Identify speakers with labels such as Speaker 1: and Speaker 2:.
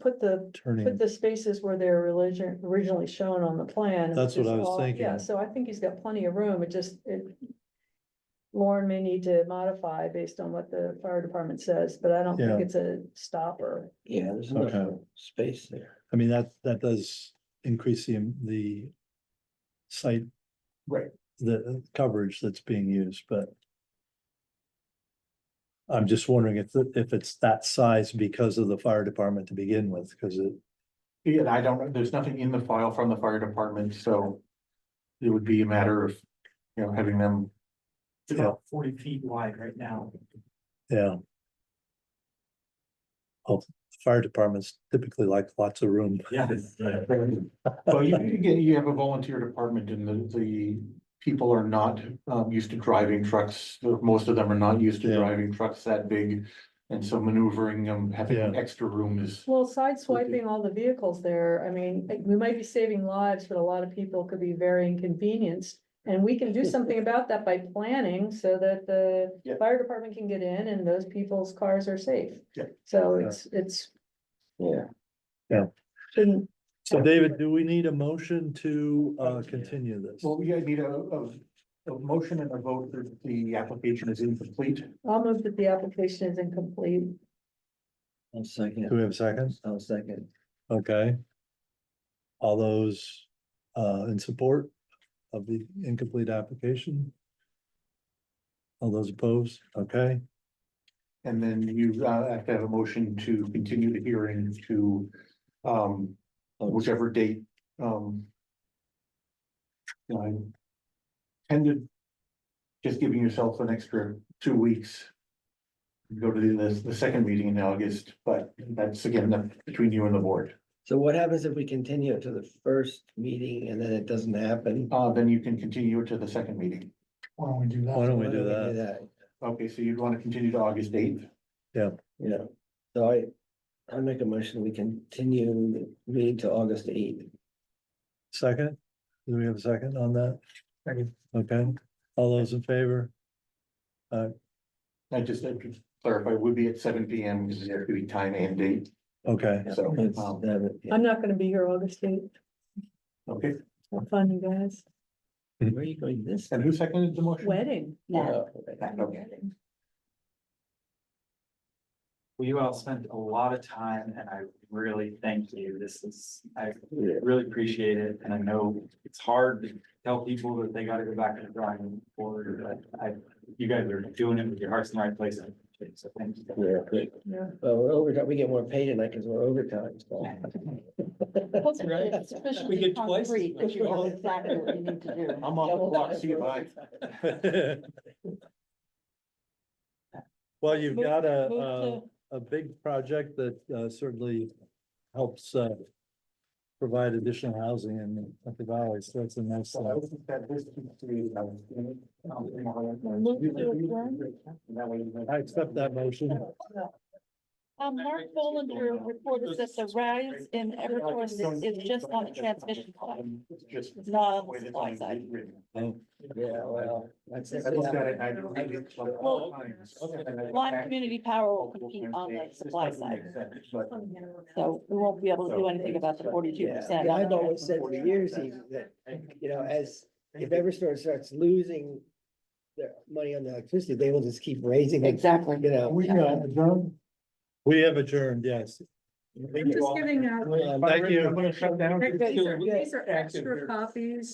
Speaker 1: put the, put
Speaker 2: turning,
Speaker 1: the spaces where they're religion, originally shown on the plan.
Speaker 2: That's
Speaker 1: which
Speaker 2: what
Speaker 1: is
Speaker 2: I was
Speaker 1: all-
Speaker 2: thinking.
Speaker 1: Yeah, so I think he's got plenty of room, it just, it. Lauren may need to modify based on what the fire department says, but I don't
Speaker 2: Yeah.
Speaker 1: think it's a stopper.
Speaker 3: Yeah, there's
Speaker 2: Okay.
Speaker 3: enough space there.
Speaker 2: I mean, that, that does increase the, the site.
Speaker 3: Right.
Speaker 2: The uh, coverage that's being used, but. I'm just wondering if, the- if it's that size because of the fire department to begin with, because it,
Speaker 4: Yeah, and I don't, know. there's nothing in the file from the fire department, so it would be a matter of, you know, having them.
Speaker 3: It's about forty feet wide right now.
Speaker 2: yeah. Well, fire departments typically like lots of room.
Speaker 3: Yeah.
Speaker 4: Well, you, you get, you have a volunteer department and the, the people are not, um, used to driving trucks. Most of them are not used to
Speaker 2: Yeah.
Speaker 4: driving trucks that big. And so maneuvering them,
Speaker 2: Yeah.
Speaker 4: having extra room is,
Speaker 1: Well, sideswiping all the vehicles there, I mean, like, we might be saving lives, but a lot of people could be very inconvenienced. And we can do something about that by planning so that the
Speaker 4: Yeah.
Speaker 1: fire department can get in and those people's cars are safe.
Speaker 4: Yeah.
Speaker 1: So it's, it's,
Speaker 3: Yeah,
Speaker 1: shouldn't,
Speaker 2: So David, do we need a motion to, uh, continue this?
Speaker 4: well, we need a, a, a motion and a vote that the application is incomplete.
Speaker 1: I'll move that the application is incomplete.
Speaker 3: I'll
Speaker 2: Do
Speaker 3: second,
Speaker 2: we have a second?
Speaker 3: I'll second.
Speaker 2: Okay. All those uh in support of the incomplete application? All those opposed? Okay,
Speaker 4: And then you, uh, have to have a motion to continue the hearing to, um, whichever date, um. you know, I Tended. Just giving yourself an extra two weeks. Go to the, the, the second meeting in August, but that's again, that's between you and the board.
Speaker 3: So what happens if we continue it to the first meeting and then it doesn't happen?
Speaker 4: Uh, then you can continue to the second meeting.
Speaker 3: Why don't we do that?
Speaker 2: Why don't we do that?
Speaker 4: Okay, so you'd want to continue to August eighth.
Speaker 3: You know, so I, I make a motion, we continue the meeting to August eighth.
Speaker 2: second? Do we have a second on that? Okay, all those in favor?
Speaker 4: I just, I just clarify, would be at seven P M, because there could be time and date,
Speaker 2: Okay,
Speaker 4: so, um,
Speaker 3: Where
Speaker 1: I'm not gonna be here August eighth.
Speaker 4: okay.
Speaker 1: Have fun, you guys.
Speaker 3: are you going this?
Speaker 4: And
Speaker 3: time?
Speaker 4: who seconded the motion?
Speaker 1: Wedding.
Speaker 3: Oh,
Speaker 4: Okay.
Speaker 5: Well, you all spent a lot of time and I really thank you. This is, I
Speaker 3: Yeah.
Speaker 5: really appreciate it. And I know it's hard to tell people that they gotta go back to the drawing board, but I, you guys are doing it with your hearts in the right place. I appreciate it, So thank you.
Speaker 3: Yeah, great.
Speaker 1: Yeah.
Speaker 3: Well, we're overtime, we get more paid tonight because we're overtime, so. Right?
Speaker 6: We
Speaker 3: get twice as much.
Speaker 6: Because you know exactly what you need to do.
Speaker 4: I'm on the clock, see you bye.
Speaker 2: well, you've
Speaker 1: Move-
Speaker 2: got a uh
Speaker 1: move
Speaker 2: a big project that uh certainly helps uh. Provide additional housing in up the valley, so that's a nice.
Speaker 4: So
Speaker 2: uh,
Speaker 4: I would think that this keeps to be, um, you know, um, you know,
Speaker 6: Well, look to it, Glenn.
Speaker 4: that way you-
Speaker 2: I accept that motion.
Speaker 6: Um, Mark Bollinger reported that the rise in Eversource is just on the transmission line.
Speaker 4: It's just
Speaker 6: It's not on
Speaker 4: the way
Speaker 6: the
Speaker 4: this
Speaker 6: supply
Speaker 4: one is
Speaker 6: side.
Speaker 4: written.
Speaker 2: Oh.
Speaker 3: Yeah, well, that's.
Speaker 4: I looked at it and I read it like all kinds.
Speaker 6: Lime Community Power will compete on the supply side,
Speaker 4: But
Speaker 6: so we won't be able to do anything about the forty-two
Speaker 3: Yeah,
Speaker 6: percent.
Speaker 3: I've always said for years even that, you know, as, if Eversource starts losing their money on the electricity, they will just keep raising it,
Speaker 6: Exactly.
Speaker 3: you know.
Speaker 4: We, uh, John,
Speaker 2: We have adjourned, yes.
Speaker 1: I'm just giving out,
Speaker 3: Um,
Speaker 2: Thank you.
Speaker 4: I'm gonna shut down.
Speaker 1: these are
Speaker 4: Active
Speaker 1: extra
Speaker 4: here.
Speaker 1: copies.